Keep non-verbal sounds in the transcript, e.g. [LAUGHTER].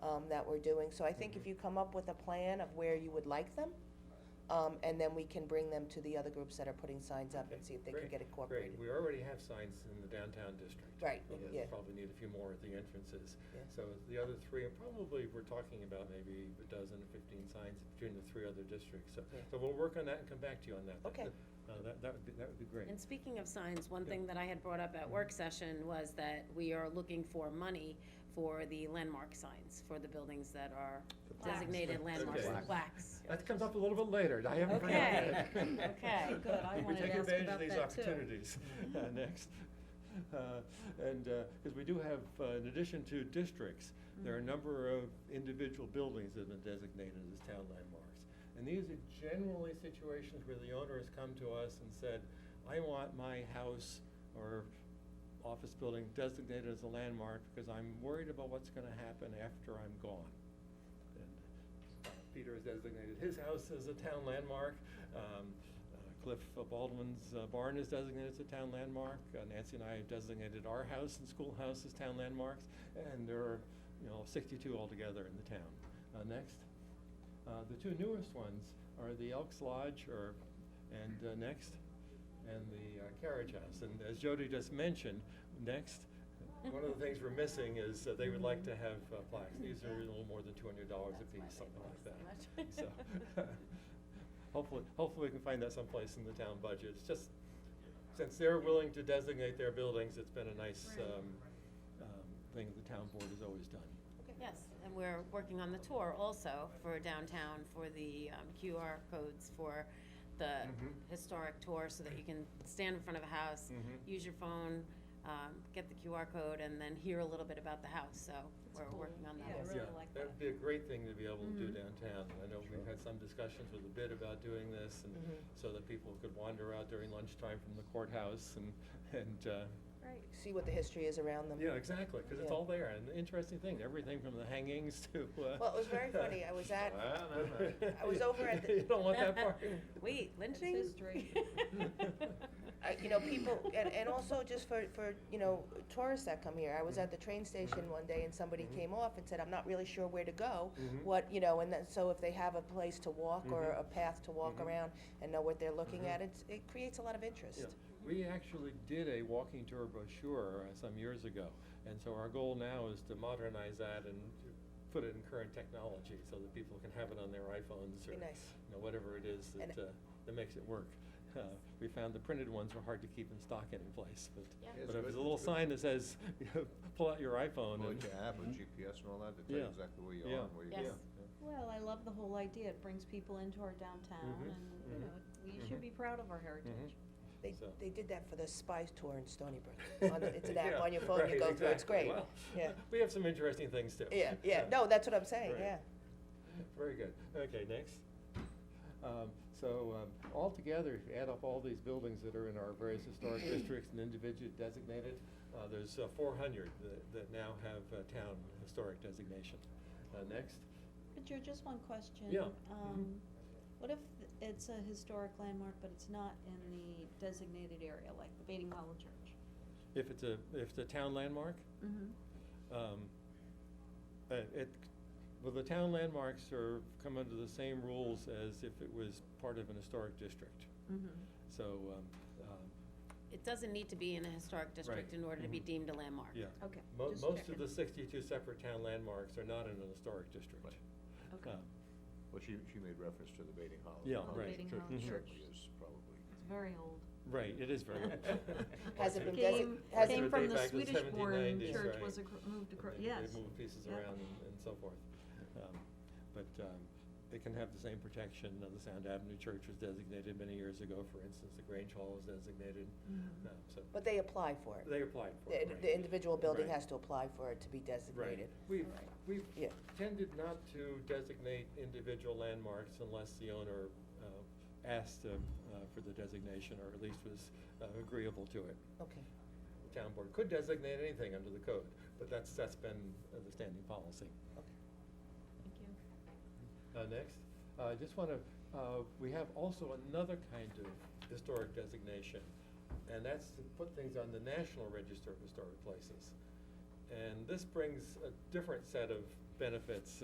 um, that we're doing. So I Mm-hmm. think if you come up with a plan of where you would like them, um, and then we can bring them to the other groups that are putting signs up and see if they can Great, get Great, incorporated. we already have signs in the downtown district. Right, But yeah. We'll probably need a few more at the entrances. Yeah. So the other three, are probably, we're talking about maybe a dozen or fifteen signs between the three other districts. So, Yeah. so we'll work on that and come back to you on that. That- Okay. that- uh, That, that would be, that would be great. And speaking of signs, one Yeah. thing that I had brought up at work session was that we are looking for money for the landmark signs, for the buildings that are plaques. designated landmarks, Okay. plaques. That comes up a little bit later, I haven't. Okay, [LAUGHS] okay, good, I We wanted to take ask advantage of about these that too. opportunities uh, next. Uh, And, because we do have, uh, in addition to districts, there are a number of individual buildings that have been designated as town landmarks. And these are generally situations where the owner has come to us and said, I want my house or office building designated as a landmark because I'm worried about what's gonna happen after I'm gone. And uh, Peter has designated his house as a town landmark. Um, uh, Cliff Baldwin's uh, barn is designated as a town landmark. Uh, Nancy and I have designated our house and schoolhouse as town landmarks. And there are, you know, sixty-two altogether in the town. Uh, Next. Uh, The two newest ones are the Elks Lodge or, and uh, next, and the uh, Carriage House. And as Jody just mentioned, next, one of the things we're missing is uh, they would like to have uh, plaques. These are a little more than two hundred dollars a That's why piece, they something like cost so that. So, [LAUGHS] much. hopefully, hopefully we can find that someplace in the town budget. It's just, since they're willing to designate their buildings, it's been a nice, Right. um, um, thing the town board has always done. Okay. Yes, and we're working on the tour also for downtown, for the um, QR codes for the Mhm. historic tour, so that you can stand in front of a house, Mhm. use your phone, um, get the QR code, and then hear a little bit about the house, so we're cool. working on Yeah, that. really like Mm-hmm. That'd be a great thing to be able to do downtown. I know we've Sure. had some discussions with the bid about doing this and Mm-hmm. Mhm. so that people could wander out during lunchtime from the courthouse and, and, uh, Right. See what the history is around them. Yeah, exactly, because it's Yeah. all there, and the interesting thing, everything from the hangings to, uh. Well, it was very funny. I was [LAUGHS] at- Wow, no, no. I was over at the- You don't want [LAUGHS] that part. [LAUGHS] Wait, lynching? [LAUGHS] history. I- Uh, you know, people, and, and also just for, for, you know, tourists that come here. I was at the train Mm-hmm. station one day and somebody Mhm. came off and said, I'm not really sure where to go. Mhm. What, you know, and then, so if they have a place to walk or Mhm. a path to walk Mhm. around and know what they're looking Mhm. at, it's, it creates a lot of Yeah. interest. We actually did a walking tour brochure uh, some years ago, and so our goal now is to modernize that and to put it in current technology so that people can have it on their iPhones or, Be nice. you know, whatever it is And- that, uh, that makes it work. Uh, We found the printed ones were hard to keep in stock any place, but, Yeah. Yeah, but if it's good- there's a little it's good. sign that says, [LAUGHS] you know, pull out your iphone Well, and. you have a GPS and all that to tell Yeah. you exactly where you Yeah. are and where you Yes. are. Well, I love the whole idea. It brings people into our downtown Mhm, and, you mhm, know, we should mhm. be proud of our heritage. Mm-hmm. Mm-hmm. They, So- they did that for the spy tour in Stony [LAUGHS] Brook. On the- It's an app Yeah, on your phone, you right, go through, it's exactly. great. Well, Yeah, [LAUGHS] We have some interesting things too. yeah, yeah, no, that's what I'm saying, Right. yeah. Very good. Okay, next. Um, So um, altogether, if you add up all these buildings that are in our [CLEARS THROAT] various historic districts and individually designated, uh, there's four hundred that, that now have uh, town historic designation. Uh, Next. But Joe, just one question. Yeah, Mm-hmm. Um, what if th- it's a historic landmark, but it's not in the designated area, like the Bating Hollow Church? If it's a, if it's a town landmark, Mm-hmm. um, uh, it, well, the town landmarks are, come under the same rules as if it was part of an historic district. Mm-hmm. So, um, um, It doesn't need to be in a historic district Right. in order to be Mhm. deemed a landmark. Yeah. Okay. Mo- just Most checking. of the sixty-two separate town landmarks are not in an historic district. Right. Okay. Uh, Well, she, she made reference to the Baiting Hollow. Yeah, Well, right. Baiting church Hollow Church. Certainly is probably. It's very old. [LAUGHS] Right, it is very. [LAUGHS] old. Has it been Architect- desi- Came, has it- came from the Architect back in Swedish born 1790s, church right. was acro- moved And across, they- yes. They move pieces Yep. around and, and so forth. Um, But, um, it can have the same protection, uh, the Sound Avenue Church was designated many years ago, for instance, the Grange Hall is designated, Mhm. um, so, But they apply for it. they applied for The, it. right. the individual building Right. has to apply for it to be Right, designated. we've, we've Yeah. tended not to designate individual landmarks unless the owner uh, asked um, uh, for the designation, or at least was uh, agreeable to it. Okay. The town board could designate anything under the code, but that's, that's been uh, the standing policy. Thank you. Uh, Next, Uh, I just want to, we have also another kind of historic designation, and that's to put things on the National Register of Historic Places. And this brings a different set of benefits